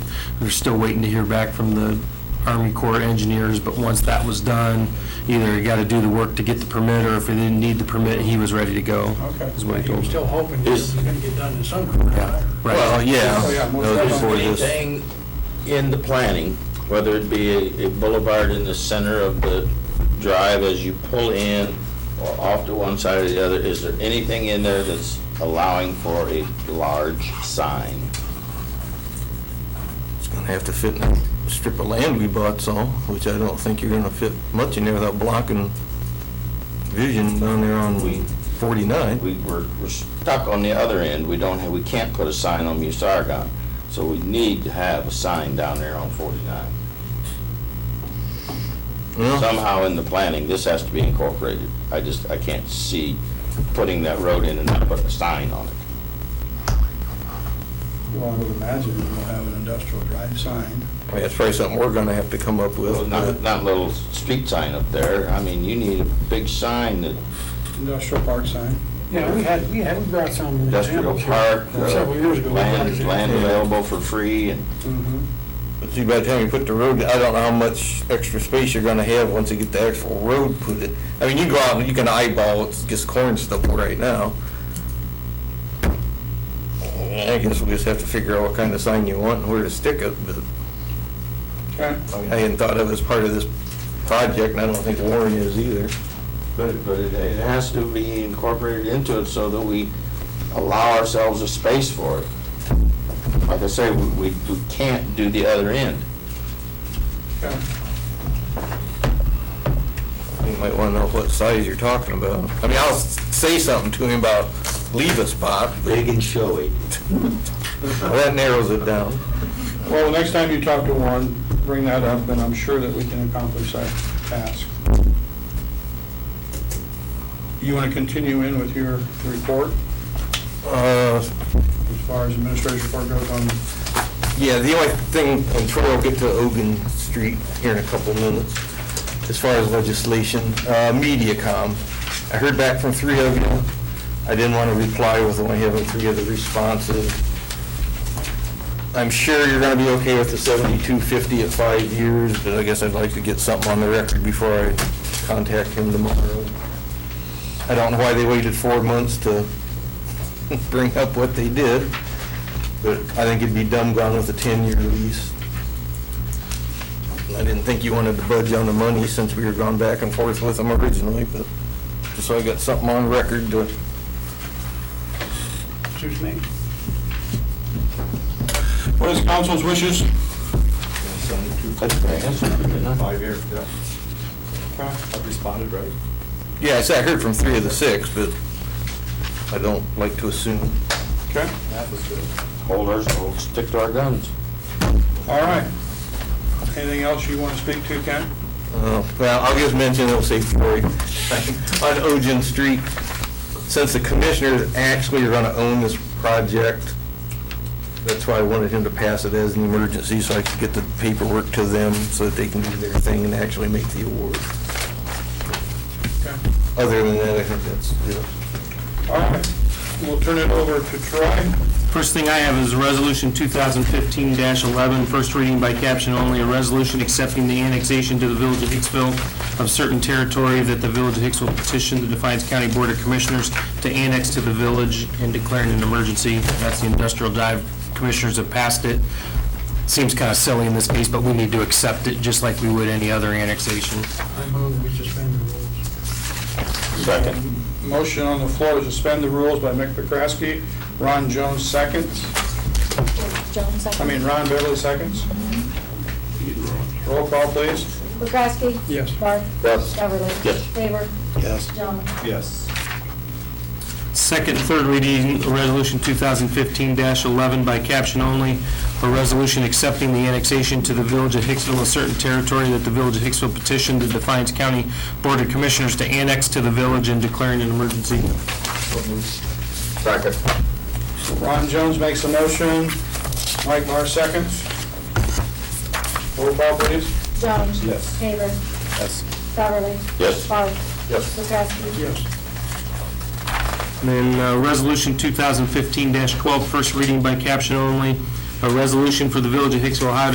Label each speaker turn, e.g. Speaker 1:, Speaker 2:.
Speaker 1: We're still waiting to hear back from the Army Corps engineers, but once that was done, either he got to do the work to get the permit, or if he didn't need the permit, he was ready to go.
Speaker 2: Okay.
Speaker 1: Is what he
Speaker 2: But you're
Speaker 1: told me.
Speaker 2: still hoping this is gonna get done this summer, right?
Speaker 1: Right.
Speaker 3: Well,
Speaker 2: Oh, yeah,
Speaker 3: yeah.
Speaker 2: most
Speaker 3: No, there's
Speaker 2: definitely.
Speaker 3: Anything in the planning, whether it be a- a boulevard in the center of the drive as you pull in or off to one side or the other, is there anything in there that's allowing for a large sign?
Speaker 4: It's gonna have to fit in that strip of land we bought some, which I don't think you're gonna fit much in there without blocking vision down there on
Speaker 3: We-
Speaker 4: 49.
Speaker 3: We, we're, we're stuck on the other end. We don't have, we can't put a sign on Musaragon. So we need to have a sign down there on 49.
Speaker 4: Well,
Speaker 3: somehow in the planning, this has to be incorporated. I just, I can't see putting that road in and not putting a sign on it.
Speaker 2: Well, I would imagine we'll have an industrial drive sign.
Speaker 4: I mean, that's probably something we're gonna have to come up
Speaker 3: Well,
Speaker 4: with.
Speaker 3: Not,
Speaker 4: but-
Speaker 3: not little street sign up there. I mean, you need a big sign that
Speaker 2: Industrial park sign. Yeah, we had, we had, we brought some
Speaker 3: industrial
Speaker 2: examples.
Speaker 3: park,
Speaker 2: here
Speaker 3: uh,
Speaker 2: Several years ago. we brought
Speaker 3: land,
Speaker 2: it.
Speaker 3: land available for free and,
Speaker 2: Mhm.
Speaker 4: But see, by the time you put the road, I don't know how much extra space you're gonna have once you get the actual road put in. I mean, you go out and you can eyeball, it's just corn stuff right now. I guess we'll just have to figure out what kind of sign you want and where to stick it, but.
Speaker 2: Okay.
Speaker 4: I mean, I hadn't thought of it as part of this project, and I don't think Warren is either.
Speaker 3: but, but it, it has to be incorporated into it so that we allow ourselves a space for it. Like I say, we, we we can't do the other end.
Speaker 2: Okay.
Speaker 4: You might want to know what size you're talking about. I mean, I'll s- say something to him about leave a spot, but
Speaker 3: Big and showy.
Speaker 4: that narrows it down.
Speaker 2: Well, the next time you talk to Warren, bring that up, and I'm sure that we can accomplish that task. You want to continue in with your report
Speaker 4: Uh,
Speaker 2: as far as administration report goes on?
Speaker 4: Yeah, the only thing, and Troy will get to Ogun Street here in a couple minutes, as far as legislation, uh, MediaCom. I heard back from three of you. I didn't want to reply with only having three of the responses. I'm sure you're going to be okay with the 7250 at five years, but I guess I'd like to get something on the record before I contact him tomorrow. I don't know why they waited four months to bring up what they did, but I think it'd be dumb gone with a 10-year lease. I didn't think you wanted to budge on the money since we were gone back and forth with them originally, but just so I got something on record to,
Speaker 2: Excuse me? What is council's wishes?
Speaker 5: Five years, yeah.
Speaker 2: Okay.
Speaker 5: I've responded, right?
Speaker 4: yeah, I said I heard from three of the six, but I don't like to assume.
Speaker 2: Okay,
Speaker 5: That was good.
Speaker 3: Hold ours, we'll stick to our guns.
Speaker 2: all right. Anything else you want to speak to, Ken?
Speaker 4: Uh, Well, I'll just mention, it'll say Troy, on Ogen Street, since the commissioners actually are going to own this project, that's why I wanted him to pass it as an emergency, so I could get the paperwork to them, so that they can do their thing and actually make the award.
Speaker 2: Okay.
Speaker 4: Other than that, I think that's, yeah.
Speaker 2: All right, we'll turn it over to Troy.
Speaker 1: First thing I have is Resolution 2015-11, first reading by caption only, a resolution accepting the annexation to the Village of Hicksville of certain territory that the Village of Hicksville petitioned the Defiance County Board of Commissioners to annex to the village and declaring an emergency. That's the industrial dive. Commissioners have passed it. Seems kind of silly in this case, but we need to accept it just like we would any other annexation.
Speaker 2: I move we suspend the rules.
Speaker 3: Second.
Speaker 2: Motion on the floor to suspend the rules by Mick McCrasky. Ron Jones seconds.
Speaker 6: Jones,
Speaker 2: I mean, Ron Beverly seconds. Roll call, please.
Speaker 6: McCrasky?
Speaker 2: Yes.
Speaker 6: Barth?
Speaker 3: Yes.
Speaker 6: Beverly?
Speaker 3: Yes.
Speaker 6: Favor? Yes. Jones?
Speaker 5: Yes.
Speaker 1: Second, third reading, Resolution 2015-11 by caption only, a resolution accepting the annexation to the Village of Hicksville of certain territory that the Village of Hicksville petitioned the Defiance County Board of Commissioners to annex to the village and declaring an emergency.
Speaker 3: Second.
Speaker 2: Ron Jones makes a motion. Mike Mar seconds. Roll call, please.
Speaker 6: Jones?
Speaker 5: Yes.
Speaker 6: Favor?
Speaker 5: Yes.
Speaker 6: Beverly?
Speaker 3: Yes.
Speaker 6: Barth?
Speaker 5: Yes.
Speaker 6: McCrasky?
Speaker 2: Yes.
Speaker 1: And Then, uh, Resolution 2015-12, first reading by caption only, a resolution for the Village of Hicksville, Ohio